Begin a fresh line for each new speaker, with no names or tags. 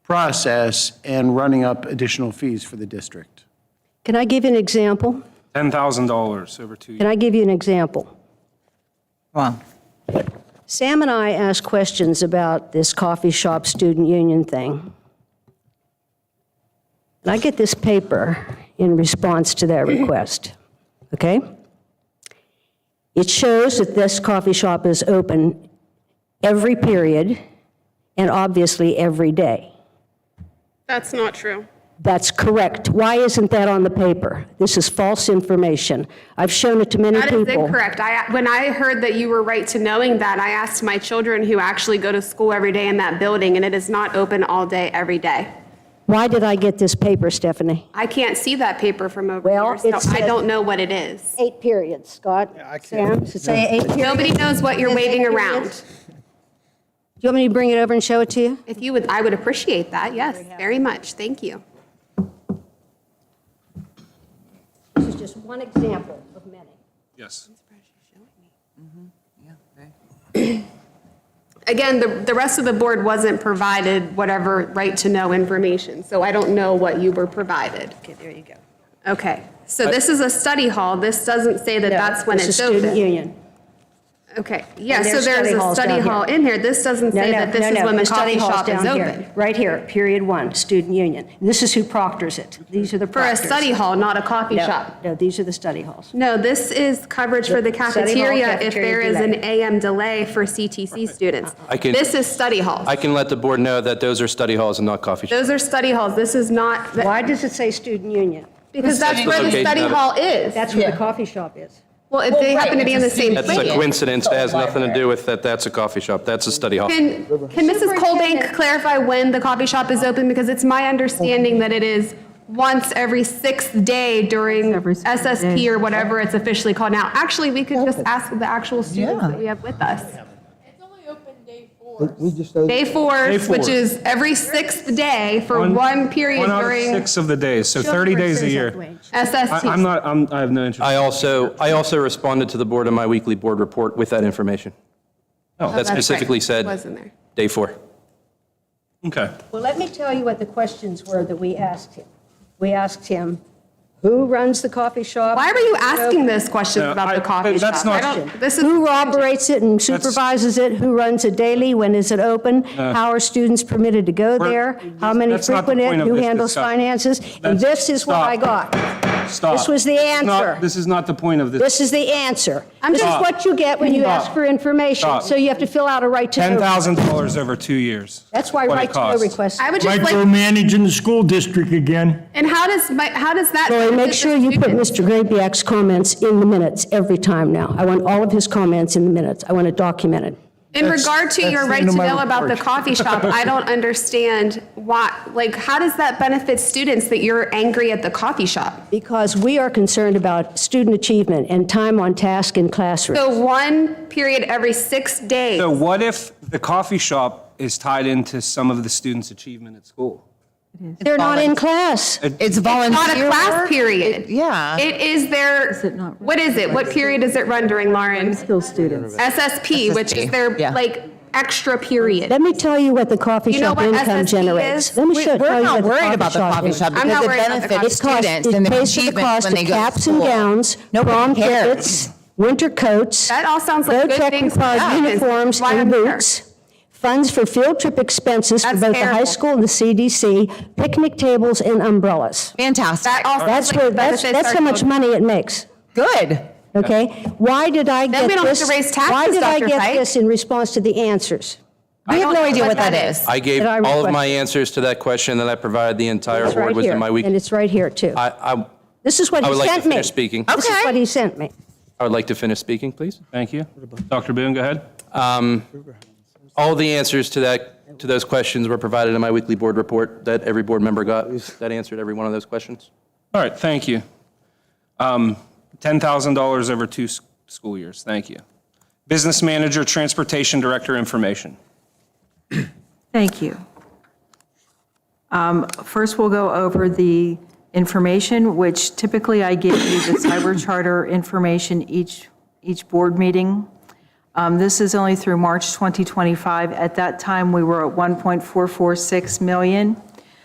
process and running up additional fees for the district.
Can I give you an example?
$10,000 over two
Can I give you an example?
Wow.
Sam and I asked questions about this coffee shop student union thing. And I get this paper in response to that request, okay? It shows that this coffee shop is open every period and obviously every day.
That's not true.
That's correct. Why isn't that on the paper? This is false information. I've shown it to many
That
people.
is incorrect. I, when I heard that you were right to knowing that, I asked my children who actually go to school every day in that building, and it is not open all day, every day.
Why did I get this paper, Stephanie?
I can't see that paper from over
Well,
here, so
it
I
said-
don't know what it is.
Eight periods, Scott. Yeah, I can't. Sam, say eight periods.
Nobody knows what you're waving around.
Do you want me to bring it over and show it to you?
If you would, I would appreciate that, yes, very much. Thank you.
This is just one example of many.
Yes.
Again, the, the rest of the board wasn't provided whatever right-to-know information, so I don't know what you were provided. Okay, there you go. Okay, so this is a study hall. This doesn't say that that's when
This is
it's open.
Student union.
Okay, yeah,
And
so
there's
there's
study
a
halls
study
down here.
hall in here. This doesn't
No,
say
no,
that this
no,
is
no,
when the
study
coffee
hall's
shop is
down here,
open.
Right here, period one, student union. This is who proctors it. These are the
For a
proctors.
study hall, not a coffee
No,
shop.
No, these are the study halls.
No, this is coverage for the
Study hall,
cafeteria if
cafeteria
there is an
delay.
AM delay for CTC students.
I can-
This is study halls.
I can let the board know that those are study halls and not coffee shops.
Those are study halls. This is not,
Why does it say student union?
because that's where the
Okay,
study
got it.
hall is.
That's where the coffee shop is.
Well, if they happen to be in the same
That's a
place.
coincidence, that has nothing to do with that that's a coffee shop, that's a study hall.
Can, can Mrs. Colbank clarify when the coffee shop is open? Because it's my understanding that it is once every sixth day during SSP or whatever it's officially called now. Actually, we could just ask the actual students that we have with us.
It's only open day four.
We just, opened-
Day four,
Day
which
four.
is every sixth day for one period
One out of
during
six of the days, so 30 days a year. I-
SST.
I'm not, I'm, I have no interest.
I also, I also responded to the board in my weekly board report with that information.
Oh,
That
right.
specifically said,
Wasn't there.
day four.
Okay.
Well, let me tell you what the questions were that we asked him. We asked him, who runs the coffee shop?
Why were you asking those questions
No,
about
I-
the coffee shop?
that's
I
not-
don't- This is.
Who operates it and supervises it? Who runs it daily? When is it open? How are students permitted to go there? How many
Uh, That's not the
frequent it?
point of
Who
this
handles
discussion.
finances? And
That's-
this is what
stop.
I got.
Stop.
This was the
is not-
answer.
This is not the point of this.
This is the answer.
I'm
This is
just-
what you get when you
Stop.
ask for information.
Stop.
So you have to fill out a right to know.
$10,000 over two years.
That's why
What it
right to know
costs.
requests.
I would just like,
micromanaging the school district again.
and how does, my- how does that?
Lori,
benefit
make
the
sure you put
students?
Mr. Grabiak's comments in the minutes every time now. I want all of his comments in the minutes. I want it documented.
In
That's-
regard to
that's
your
the
right
end
to
of my
know about the
report.
coffee shop, I don't understand why, like, how does that benefit students that you're angry at the coffee shop?
Because we are concerned about student achievement and time on task in classrooms.
So one period every six days.
So what if the coffee shop is tied into some of the students' achievement at school?
They're not in class.
It's
Not a
volunteer
class
work.
period.
It- Yeah.
It is their, what is it? What period does it run during, Lauren? Skills students. SSP, which is their,
Yeah.
like, extra period.
Let me tell you what the coffee
You know
shop
what
income
SSP
generates.
is?
Let me
We-
show- tell
We're
you what
not
the
worried about the coffee
is.
shop
I'm not
because it
worried about the
benefits
coffee
cost-
students and
It
their
pays for the
achievements
cost
when
of
they go to
caps and
school.
gowns,
Nobody
prom
cares.
kits, winter coats.
That all sounds like good
low-tech
things for
required
students.
uniforms
Why
and
I'm here.
boots, funds for field trip expenses for
That's
both the high
terrible.
school and the CDC, picnic tables and umbrellas.
That
Fantastic.
all sounds
That's
like
where,
it
that's,
benefits
that's
our
how much
children.
money it makes,
Good.
okay? Why did I get this?
Then we don't have to raise
Why
taxes,
did I
Dr.
get
Fike.
this in response to the answers?
We have no
know
idea
what
what that
that
is.
I gave
Did I
all of
request-
my answers to that question that I provided the entire
It's
board
right here,
within my
and
week.
it's right here, too.
I, I,
This is what
I
he
would like to
sent me.
finish speaking.
This is
Okay.
what he sent me.
I would like to finish speaking, please.
Thank you. Dr. Boone, go ahead.
All the answers to that, to those questions were provided in my weekly board report that every board member got. That answered every one of those questions.
All right, thank you. Um, $10,000 over two s- school years, thank you. Business manager, transportation director, information.
Thank you. Um, First, we'll go over the information, which typically I give you the cyber charter information each, each board meeting. Um, This is only through March 2025. At that time, we were at 1.446 million.